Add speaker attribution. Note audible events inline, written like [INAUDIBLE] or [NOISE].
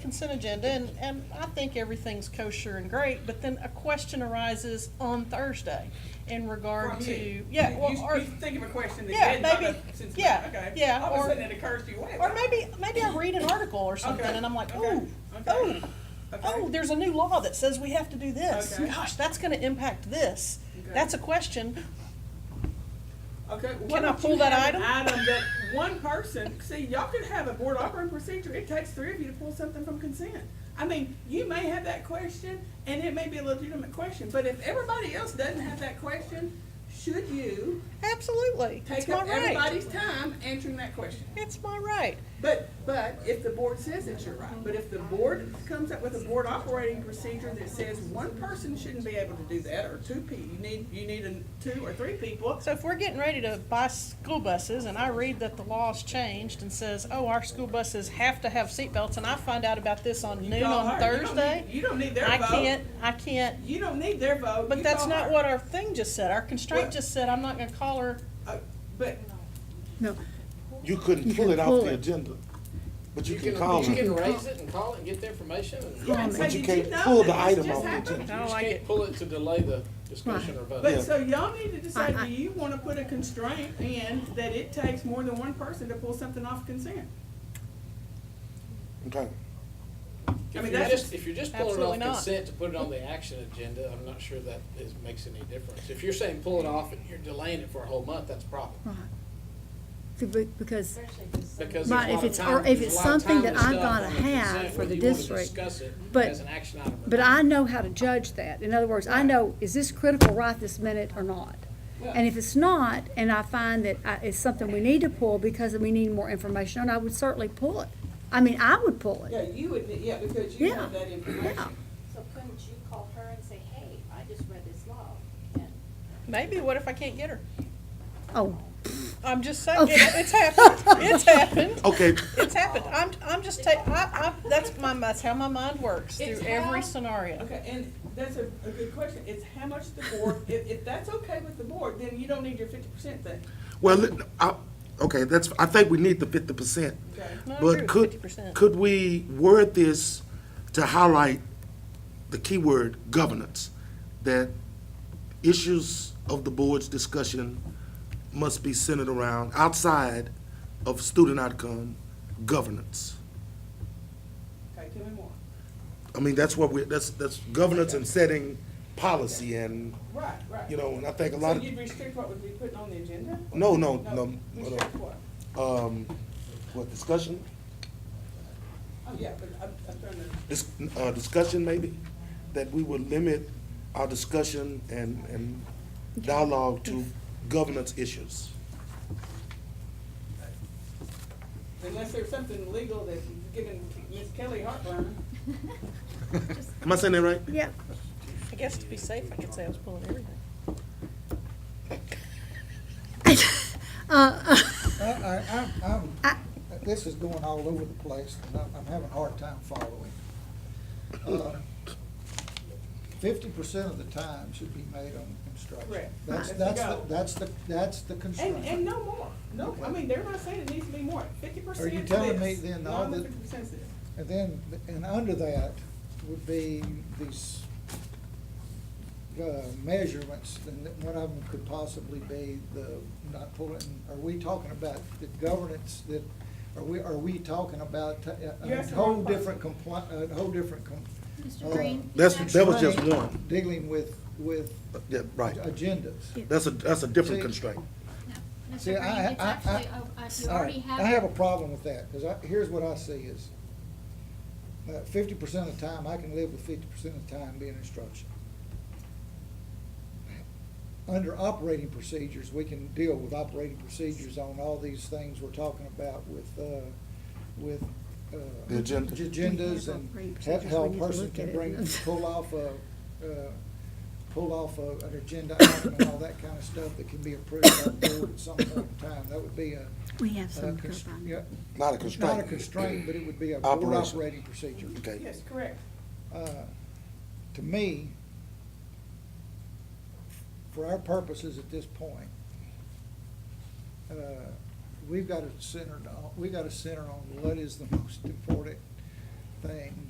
Speaker 1: consent agenda, and, and I think everything's kosher and great, but then a question arises on Thursday in regard
Speaker 2: From
Speaker 1: to,
Speaker 2: you.
Speaker 1: yeah,
Speaker 2: You-
Speaker 1: well,
Speaker 2: you-
Speaker 1: or,
Speaker 2: You think of a question that you
Speaker 1: Yeah,
Speaker 2: hadn't thought
Speaker 1: maybe-
Speaker 2: of since,
Speaker 1: yeah,
Speaker 2: okay.
Speaker 1: yeah,
Speaker 2: All of
Speaker 1: or-
Speaker 2: a sudden it occurs to you, wait.
Speaker 1: or maybe, maybe I read an article or something,
Speaker 2: Okay,
Speaker 1: and I'm like,
Speaker 2: okay,
Speaker 1: ooh,
Speaker 2: okay,
Speaker 1: oh,
Speaker 2: okay.
Speaker 1: oh, there's a new law that says we have to do this.
Speaker 2: Okay.
Speaker 1: Gosh, that's gonna impact this.
Speaker 2: Okay.
Speaker 1: That's a question.
Speaker 2: Okay,
Speaker 1: Can
Speaker 2: why
Speaker 1: I
Speaker 2: don't you
Speaker 1: pull that
Speaker 2: have an
Speaker 1: item?
Speaker 2: Item that one person, see, y'all could have a board operating procedure, it takes three of you to pull something from consent. I mean, you may have that question, and it may be a legitimate question, but if everybody else doesn't have that question, should you
Speaker 1: Absolutely. It's
Speaker 2: take
Speaker 1: my
Speaker 2: up
Speaker 1: right.
Speaker 2: everybody's time answering that question?
Speaker 1: It's my right.
Speaker 2: But, but if the board says it's your right, but if the board comes up with a board operating procedure that says one person shouldn't be able to do that, or two pe, you need, you need a, two or three people,
Speaker 1: So if we're getting ready to buy school buses and I read that the law's changed and says, oh, our school buses have to have seatbelts and I find out about this on
Speaker 2: you
Speaker 1: noon
Speaker 2: call
Speaker 1: on
Speaker 2: her. You don't need-
Speaker 1: Thursday,
Speaker 2: You don't need their
Speaker 1: I
Speaker 2: vote.
Speaker 1: can't, I can't,
Speaker 2: You don't need their vote.
Speaker 1: but
Speaker 2: You
Speaker 1: that's
Speaker 2: call
Speaker 1: not
Speaker 2: her.
Speaker 1: what our thing just said. Our constraint
Speaker 2: What?
Speaker 1: just said, I'm not gonna call her.
Speaker 2: Uh, But
Speaker 3: No,
Speaker 4: You couldn't pull it off the agenda, but you can call
Speaker 5: You can
Speaker 4: them.
Speaker 5: raise it and call it and get the information. and- You
Speaker 2: yeah, and
Speaker 3: But
Speaker 2: say,
Speaker 4: you
Speaker 2: did
Speaker 4: can't
Speaker 2: know
Speaker 4: pull
Speaker 2: that
Speaker 4: the
Speaker 2: this
Speaker 4: item
Speaker 2: just
Speaker 4: off the
Speaker 2: happened?"
Speaker 4: agenda.
Speaker 1: I don't
Speaker 5: just
Speaker 1: like
Speaker 5: can't
Speaker 1: it.
Speaker 5: pull it to delay the discussion or
Speaker 2: But
Speaker 5: vote.
Speaker 2: so y'all need to decide,
Speaker 3: I- I-
Speaker 2: do you want to put a constraint in that it takes more than one person to pull something off consent? I
Speaker 4: Okay,
Speaker 2: mean,
Speaker 5: If you're
Speaker 2: that's-
Speaker 5: just, if you're just pulling it
Speaker 1: Absolutely
Speaker 5: off
Speaker 1: not.
Speaker 5: consent to put it on the action agenda, I'm not sure that is, makes any difference. If you're saying pull it off and you're delaying it for a whole month, that's a problem.
Speaker 3: right. See, be- Because,
Speaker 5: Because there's a
Speaker 3: Right, if
Speaker 5: lot of
Speaker 3: it's-
Speaker 5: time-
Speaker 3: or if
Speaker 5: there's a
Speaker 3: it's
Speaker 5: lot of
Speaker 3: something that
Speaker 5: time
Speaker 3: I've
Speaker 5: stuff
Speaker 3: gotta
Speaker 5: on the
Speaker 3: have
Speaker 5: consent,
Speaker 3: for
Speaker 5: whether
Speaker 3: the
Speaker 5: you wanna
Speaker 3: district,
Speaker 5: Discuss it
Speaker 3: but-
Speaker 5: as an action item. or
Speaker 3: but
Speaker 5: not.
Speaker 3: I know how to judge that. In other words, I know, is this critical right this minute or not? And if it's not, and I find that I- it's something we need to pull because we need more information, on, I would certainly pull it. I mean, I would pull
Speaker 2: Yeah,
Speaker 3: it.
Speaker 2: you would, yeah, because you have
Speaker 3: Yeah,
Speaker 2: that
Speaker 3: Yeah,
Speaker 2: information.
Speaker 6: So couldn't you call her and say, hey, I just read this law, and
Speaker 1: Maybe, what if I can't get her?
Speaker 3: oh,
Speaker 1: I'm just saying, it- it's happened, [LAUGHS] it's happened,
Speaker 4: okay,
Speaker 1: it's happened. I'm, I'm just ta, I, I, that's my, that's how my mind works through
Speaker 2: It's
Speaker 1: every
Speaker 2: how-
Speaker 1: scenario.
Speaker 2: Okay, and that's a, a good question. It's how much the
Speaker 7: [LAUGHS]
Speaker 2: board, if, if that's okay with the board, then you don't need your fifty percent thing.
Speaker 4: well, let- I, okay, that's, I think we need the fifty percent.
Speaker 2: Okay.
Speaker 1: No, I agree
Speaker 4: But
Speaker 1: with
Speaker 4: could,
Speaker 1: 50%.
Speaker 4: could we word this to highlight the keyword governance? That issues of the board's discussion must be centered around, outside of student outcome, governance.
Speaker 2: Okay, tell me more.
Speaker 4: I mean, that's what we, that's, that's governance and setting policy and,
Speaker 2: Right, right.
Speaker 4: you know, and I think a
Speaker 2: So
Speaker 4: lot of.
Speaker 2: you'd restrict what would be put on the agenda?
Speaker 4: No, no, no, no,
Speaker 2: Restrict what?
Speaker 4: um, what, discussion?
Speaker 2: Oh, yeah, but I'm, I'm trying to.
Speaker 4: Dis- uh, discussion maybe? That we would limit our discussion and, and dialogue to governance issues.
Speaker 2: Unless there's something legal that's giving Miss Kelly heartburn.
Speaker 4: Am I saying that right?
Speaker 3: yeah. [LAUGHS]
Speaker 1: I guess to be safe, I could say I was pulling everything.
Speaker 3: Uh,
Speaker 7: I, I, I'm,
Speaker 3: I-
Speaker 7: I'm, this is going all over the place, and I'm, I'm having a hard time following. Fifty percent of the time should be made on instruction.
Speaker 2: Correct.
Speaker 7: That's,
Speaker 2: Right.
Speaker 7: that's,
Speaker 2: Go.
Speaker 7: the- that's the, that's the
Speaker 2: And, and
Speaker 7: constraint.
Speaker 2: no more. No, I mean, they're not saying it needs to be more. Fifty percent
Speaker 7: Are you
Speaker 2: is
Speaker 7: telling
Speaker 2: this,
Speaker 7: me then
Speaker 2: no
Speaker 7: all
Speaker 2: more
Speaker 7: the-
Speaker 2: than 50% is this.
Speaker 7: And then, and under that would be these, uh, measurements, and that one of them could possibly be the, not pulling, are we talking about the governance that, are we, are we talking about uh, a-
Speaker 2: You're
Speaker 7: a
Speaker 2: asking the wrong
Speaker 7: whole
Speaker 2: person.
Speaker 7: different compli, a whole different com-
Speaker 8: Mr.
Speaker 7: Uh,
Speaker 8: Green?
Speaker 4: That's, that was just
Speaker 7: constraint
Speaker 4: one.
Speaker 7: Dealing with, with
Speaker 4: Yeah, right.
Speaker 7: agendas.
Speaker 4: That's a, that's a different
Speaker 7: See-
Speaker 4: constraint.
Speaker 8: Mr.
Speaker 7: See,
Speaker 8: Green,
Speaker 7: I-
Speaker 8: it's
Speaker 7: I- I-
Speaker 8: actually, oh, uh, you
Speaker 7: All
Speaker 8: already
Speaker 7: right,
Speaker 8: have.
Speaker 7: I have a problem with that, because I, here's what I see is, uh, fifty percent of the time, I can live with fifty percent of the time being instruction. Under operating procedures, we can deal with operating procedures on all these things we're talking about with, uh, with. uh,
Speaker 4: The agenda.
Speaker 7: Agendas
Speaker 3: We have operating
Speaker 7: and how-
Speaker 3: procedures,
Speaker 7: how
Speaker 3: we
Speaker 7: a
Speaker 3: need to
Speaker 7: person
Speaker 3: look at
Speaker 7: can
Speaker 3: it.
Speaker 7: bring,
Speaker 3: [LAUGHS]
Speaker 7: pull off a, uh, pull off a, an agenda item and all that kind of stuff that can be approved by the board at some point in time. That would be a,
Speaker 3: We have
Speaker 7: uh, cons- yeah,
Speaker 4: Not a
Speaker 7: it's
Speaker 4: constraint.
Speaker 7: not a constraint, but it would be a board
Speaker 4: Operation.
Speaker 7: operating procedure.
Speaker 4: Okay,
Speaker 2: Yes, correct.
Speaker 7: Uh, To me, for our purposes at this point, uh, we've got to center, we've got to center on what is the most important thing